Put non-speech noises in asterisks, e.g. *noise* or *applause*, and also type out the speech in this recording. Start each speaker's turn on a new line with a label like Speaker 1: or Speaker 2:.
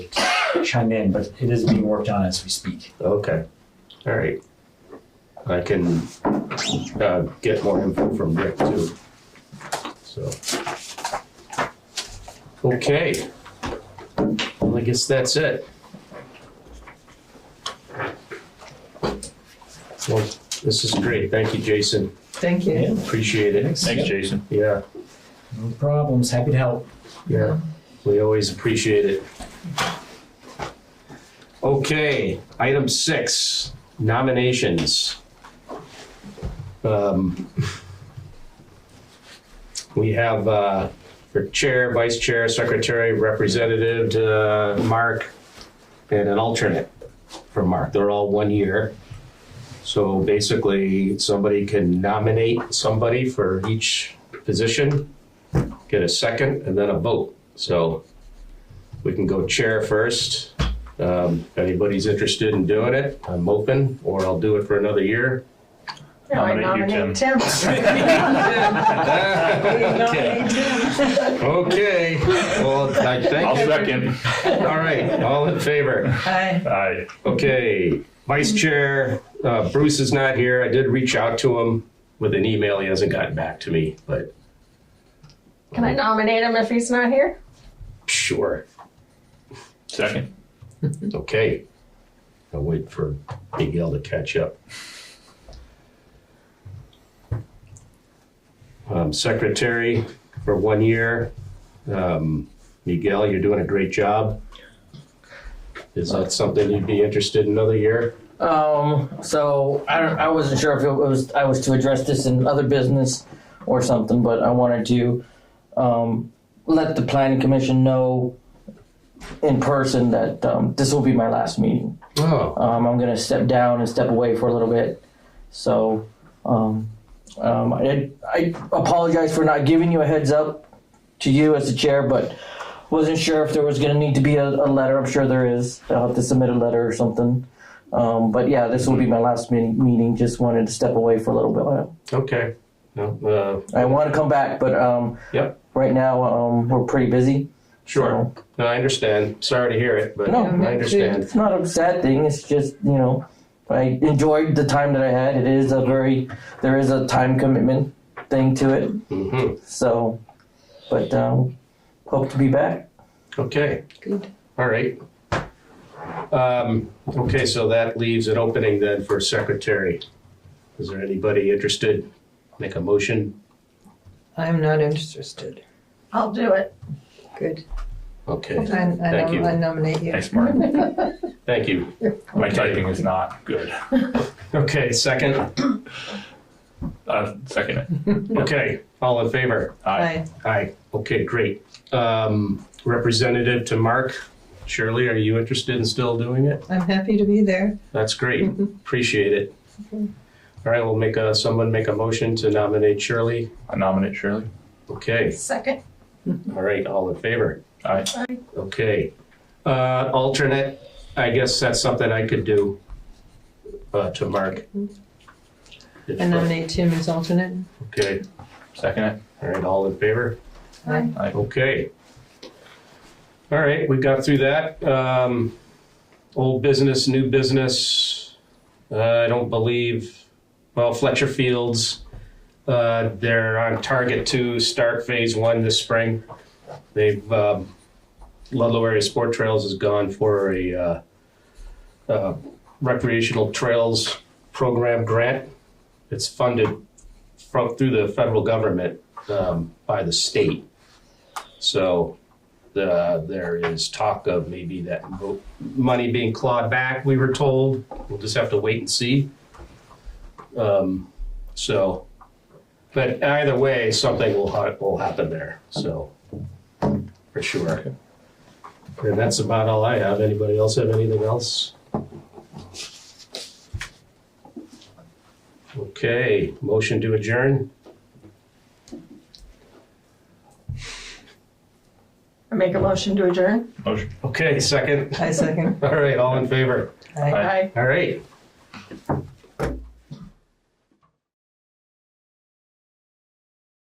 Speaker 1: *coughs* chime in, but it is being worked on as we speak.
Speaker 2: Okay, all right. I can uh, get more info from Rick too. So. Okay. Well, I guess that's it. Well, this is great. Thank you, Jason.
Speaker 3: Thank you.
Speaker 1: Yeah,
Speaker 2: Appreciate it.
Speaker 4: Thanks, Jason.
Speaker 2: Yeah,
Speaker 1: no problems. Happy to help.
Speaker 2: yeah. We always appreciate it. Okay, item six, nominations. Um, We have uh, for chair, vice chair, secretary, representative, uh, Mark, and an alternate for Mark. They're all one year. So basically, somebody can nominate somebody for each position, get a second, and then a vote. So we can go chair first. Um, If anybody's interested in doing it, I'm open, or I'll do it for another year.
Speaker 3: Now I
Speaker 4: Nominate you,
Speaker 3: nominate Tim.
Speaker 5: *laughs*
Speaker 3: Nominate Tim.
Speaker 2: Okay, well, I
Speaker 4: I'll
Speaker 2: thank
Speaker 4: second.
Speaker 2: you. All right, all in favor?
Speaker 3: Hi.
Speaker 4: Aye.
Speaker 2: Okay, Vice Chair, uh, Bruce is not here. I did reach out to him with an email. He hasn't gotten back to me, but
Speaker 3: Can I nominate him if he's not here?
Speaker 2: sure.
Speaker 4: Second.
Speaker 2: Okay. I'll wait for Miguel to catch up. Um, Secretary for one year. Um, Miguel, you're doing a great job. Is that something you'd be interested in another year?
Speaker 6: Um, so I, don't- I wasn't sure if it was I was to address this in other business or something, but I wanted to um, let the planning commission know in person that um, this will be my last meeting.
Speaker 2: Oh,
Speaker 6: Um, I'm gonna step down and step away for a little bit. So um, um, I, I apologize for not giving you a heads up to you as the chair, but wasn't sure if there was gonna need to be a, a letter. I'm sure there is. I'll have to submit a letter or something. Um, but yeah, this will be my last meeting. Meeting. Just wanted to step away for a little bit.
Speaker 2: okay. No, uh,
Speaker 6: I want to come back, but um,
Speaker 2: Yep.
Speaker 6: right now um, we're pretty busy.
Speaker 2: Sure.
Speaker 6: So
Speaker 2: No, I understand. Sorry to hear it, but
Speaker 6: No,
Speaker 2: I understand.
Speaker 6: it's not a sad thing. It's just you know, I enjoyed the time that I had. It is a very there is a time commitment thing to it.
Speaker 2: hmm
Speaker 6: So, but um, hope to be back.
Speaker 2: Okay.
Speaker 3: Good.
Speaker 2: All right. Um, okay, so that leaves an opening then for secretary. Is there anybody interested? Make a motion.
Speaker 5: I'm not interested.
Speaker 3: I'll do it.
Speaker 5: Good.
Speaker 2: Okay.
Speaker 5: I, I,
Speaker 2: Thank you.
Speaker 5: nom- I nominate you.
Speaker 4: Thanks, Mark.
Speaker 2: Thank you.
Speaker 4: My typing is not good.
Speaker 2: Okay, second.
Speaker 4: Uh, second it.
Speaker 2: Okay, all in favor?
Speaker 4: Aye.
Speaker 5: Aye.
Speaker 2: Aye. Okay, great. Um, representative to Mark. Shirley, are you interested in still doing it?
Speaker 5: I'm happy to be there.
Speaker 2: That's great. Appreciate it. All right, we'll make a, someone make a motion to nominate Shirley.
Speaker 4: I nominate Shirley.
Speaker 2: Okay,
Speaker 3: Second.
Speaker 2: all right, all in favor?
Speaker 4: Aye.
Speaker 2: Okay. Uh, alternate, I guess that's something I could do, uh, to Mark. If,
Speaker 5: I
Speaker 2: uh,
Speaker 5: nominate Tim as alternate.
Speaker 2: Okay,
Speaker 4: Second it.
Speaker 2: all right, all in favor?
Speaker 3: Aye.
Speaker 2: Okay. All right, we got through that. Um, old business, new business. Uh, I don't believe, well, Fletcher Fields, uh, they're on target to start phase one this spring. They've, um, Ludlow Area Sport Trails has gone for a, uh, uh, recreational trails program grant. It's funded from, through the federal government, um, by the state. So the, there is talk of maybe that mo- money being clawed back, we were told. We'll just have to wait and see. Um, so, but either way, something will, ha- will happen there, so, for sure. And that's about all I have. Anybody else have anything else? Okay, motion to adjourn?
Speaker 3: I make a motion to adjourn.
Speaker 4: Motion.
Speaker 2: Okay, second.
Speaker 5: I second.
Speaker 2: All right, all in favor?
Speaker 5: Aye.
Speaker 4: Aye.
Speaker 3: Aye.
Speaker 2: All right.